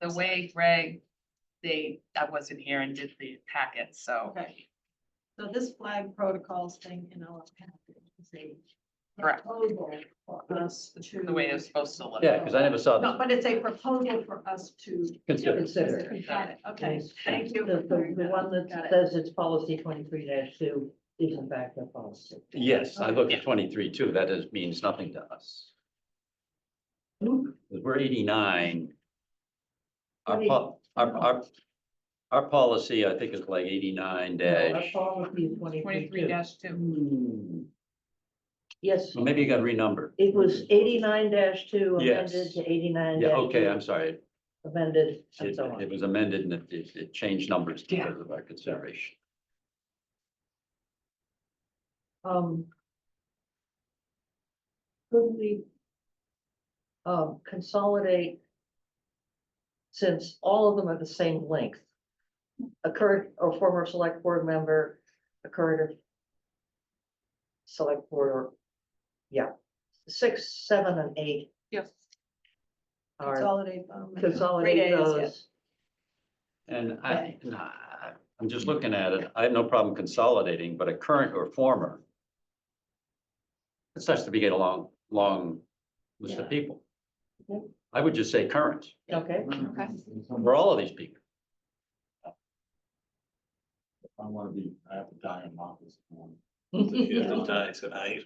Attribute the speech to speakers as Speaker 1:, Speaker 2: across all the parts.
Speaker 1: the way Greg, they, I wasn't here and did the packet, so.
Speaker 2: Okay. So this flag protocols thing in our packet is a
Speaker 1: Correct.
Speaker 2: proposal for us to.
Speaker 1: The way it's supposed to look.
Speaker 3: Yeah, because I never saw
Speaker 2: No,
Speaker 3: this.
Speaker 2: but it's a proposal for us to.
Speaker 3: Consider.
Speaker 4: Consider.
Speaker 2: Got it, okay, thank you.
Speaker 4: The, the, the one
Speaker 2: Got
Speaker 4: that
Speaker 2: it.
Speaker 4: says it's policy twenty-three two is in fact a policy.
Speaker 3: Yes, I looked at twenty-three too. That is, means nothing to us. 'Cause We're eighty-nine. Our, po- our, our, our policy, I think, is like eighty-nine
Speaker 4: Our
Speaker 3: dash.
Speaker 4: policy is twenty-three
Speaker 1: Twenty-three two.
Speaker 3: Hmm,
Speaker 4: Yes,
Speaker 3: Well, maybe you got renumbered.
Speaker 4: it was eighty-nine two
Speaker 3: Mm-hmm. Yes.
Speaker 4: amended to eighty-nine
Speaker 3: Yeah, okay, I'm sorry. It-
Speaker 4: Amended and so
Speaker 3: It
Speaker 4: on.
Speaker 3: was amended and it, it it changed numbers because of our consideration.
Speaker 4: Um. Could we? Um, consolidate. Since all of them are the same length. A current or former select board member, a current. or Select board or. Yeah, six, seven and eight
Speaker 1: Yes.
Speaker 4: are
Speaker 2: Consolidate. um,
Speaker 4: consolidate
Speaker 2: Three days, yeah.
Speaker 4: those.
Speaker 3: And I, nah, I'm just looking at it. I have no problem consolidating, but a current or former. It starts to be get a long, long list of people.
Speaker 4: Yep.
Speaker 3: I would just say current
Speaker 4: Okay,
Speaker 1: Okay.
Speaker 3: for all of these people.
Speaker 5: I wanna be, I have to die in office. tomorrow.
Speaker 6: You have to die tonight.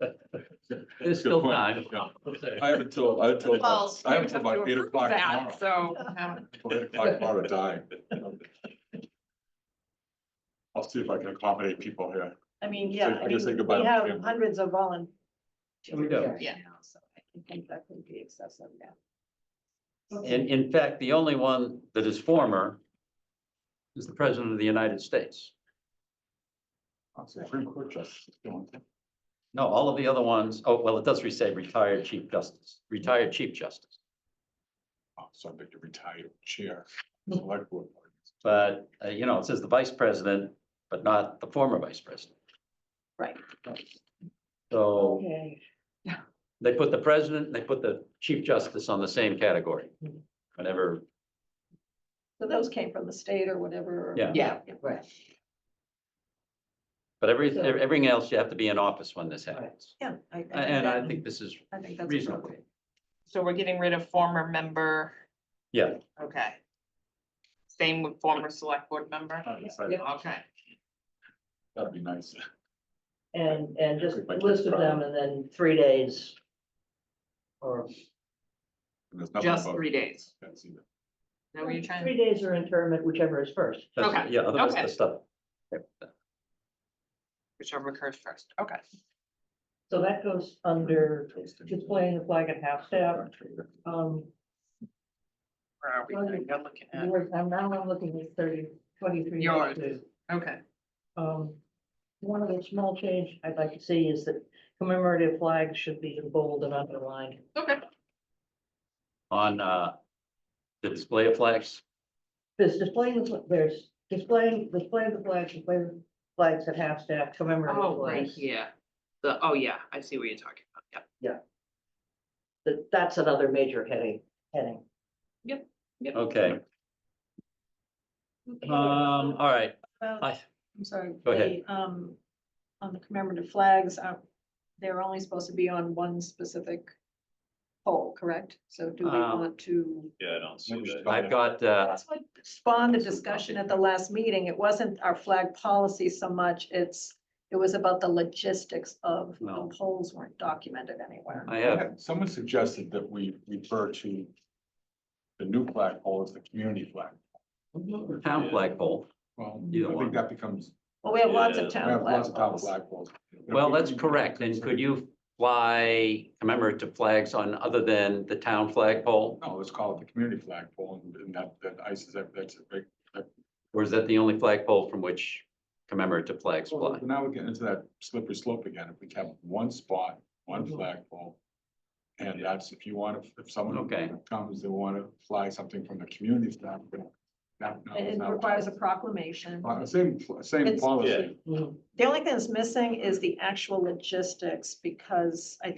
Speaker 3: There's
Speaker 5: Good
Speaker 3: still
Speaker 5: point.
Speaker 3: time.
Speaker 5: Yeah. I haven't told, I haven't told,
Speaker 1: Well,
Speaker 5: I haven't told
Speaker 1: you
Speaker 5: about
Speaker 1: have
Speaker 5: eight
Speaker 1: to
Speaker 5: o'clock
Speaker 1: approve
Speaker 5: tomorrow.
Speaker 1: that, So, um,
Speaker 5: Till Eight o'clock tomorrow to die. I'll see if I can accommodate people here.
Speaker 2: I mean, yeah,
Speaker 5: So I
Speaker 2: I
Speaker 5: guess
Speaker 2: mean,
Speaker 5: they go by
Speaker 2: we
Speaker 5: the
Speaker 2: have
Speaker 5: family.
Speaker 2: hundreds of volunteers.
Speaker 3: We do.
Speaker 1: Yeah.
Speaker 2: now, So I can think that could be excessive now.
Speaker 3: In, in fact, the only one that is former is the president of the United States.
Speaker 5: I'll see Supreme Court justice. don't they?
Speaker 3: No, all of the other ones, oh, well, it does re- say retired chief justice, retired chief justice.
Speaker 5: Oh, So I think you retired chair. Select board.
Speaker 3: But, uh, you know, it says the vice president, but not the former vice president.
Speaker 2: Right.
Speaker 3: So
Speaker 4: okay,
Speaker 3: they put the president, they put the chief justice on the same category. Whenever,
Speaker 2: So those came from the state or whatever. or-
Speaker 3: Yeah.
Speaker 1: Yeah.
Speaker 4: right,
Speaker 3: but every, everything else, you have to be in office when this happens.
Speaker 2: Yeah. I- I think
Speaker 3: A- And
Speaker 2: that-
Speaker 3: I think this is
Speaker 2: I think that's
Speaker 3: reasonable.
Speaker 2: appropriate.
Speaker 1: so we're getting rid of former member,
Speaker 3: Yeah,
Speaker 1: okay. Same with former select board member,
Speaker 5: I decided
Speaker 1: okay.
Speaker 5: That'd be nice.
Speaker 4: and, and just
Speaker 5: Everybody
Speaker 4: list of
Speaker 5: gets
Speaker 4: them and then three days. Or
Speaker 5: And there's nothing
Speaker 1: Just
Speaker 5: about
Speaker 1: three days.
Speaker 5: that's either.
Speaker 1: Is that what you're trying?
Speaker 4: Three days or internment, whichever is first.
Speaker 3: that's,
Speaker 1: Okay,
Speaker 3: yeah, otherwise
Speaker 1: okay.
Speaker 3: the stuff.
Speaker 1: Whichever occurs first, okay.
Speaker 4: So that goes under displaying the flag at half staff. Um,
Speaker 1: Where are we?
Speaker 4: Okay.
Speaker 1: You're looking at-
Speaker 4: yours- I'm now I'm looking at thirty, twenty-three.
Speaker 1: Yours.
Speaker 4: 22.
Speaker 1: Okay,
Speaker 4: Um, one of the small change I'd like to see is that commemorative flags should be in bold and underlined.
Speaker 1: okay.
Speaker 3: On, uh, the display of flags,
Speaker 4: There's displaying, the fl- there's displaying, displaying the flags, display the flags at half staff, commemorative
Speaker 1: Oh, right
Speaker 4: flags.
Speaker 1: here. The, oh, yeah, I see what you're talking about, yeah.
Speaker 4: That, that's another major heading, heading.
Speaker 3: okay,
Speaker 2: Okay.
Speaker 3: um, all right,
Speaker 2: Well,
Speaker 3: I,
Speaker 2: I'm sorry.
Speaker 3: Go ahead.
Speaker 2: the, Um, on the commemorative flags, uh, they're only supposed to be on one specific pole, correct? So do we
Speaker 3: Um,
Speaker 2: want to?
Speaker 6: Yeah, I don't see
Speaker 5: Maybe
Speaker 6: that.
Speaker 3: I've got, uh,
Speaker 2: That's what spawned the discussion at the last meeting. It wasn't our flag policy so much, it's, it was about the logistics of
Speaker 3: No.
Speaker 2: the poles weren't documented anywhere.
Speaker 3: I have,
Speaker 5: Someone suggested that we refer to the new flag pole as the community flag.
Speaker 3: town flagpole.
Speaker 5: Well,
Speaker 3: Either
Speaker 5: I
Speaker 3: one.
Speaker 5: think that becomes,
Speaker 2: Well, we have lots
Speaker 6: Yeah.
Speaker 2: of
Speaker 5: we
Speaker 2: town
Speaker 5: have
Speaker 2: flag
Speaker 5: lots of town
Speaker 2: poles.
Speaker 5: flag poles.
Speaker 3: Well, that's correct. And could you fly commemorative flags on other than the town flagpole?
Speaker 5: No, let's call it the community flag pole and- and that, that ice is, that's a big.
Speaker 3: Or is that the only flagpole from which commemorative flags fly?
Speaker 5: Well, Now we're getting into that slippery slope again. If we have one spot, one
Speaker 3: Mm-hmm.
Speaker 4: Mhm.
Speaker 5: flag pole. And that's if you want, to if someone
Speaker 3: Okay.
Speaker 5: comes, they want to fly something from the community staff. That, no,
Speaker 2: It
Speaker 5: it's
Speaker 2: it
Speaker 5: not.
Speaker 2: requires a proclamation.
Speaker 5: Uh, Same, same
Speaker 2: It's-
Speaker 5: policy.
Speaker 1: Mm-hmm.
Speaker 4: Mhm.
Speaker 2: The only thing that's missing is the actual logistics, because I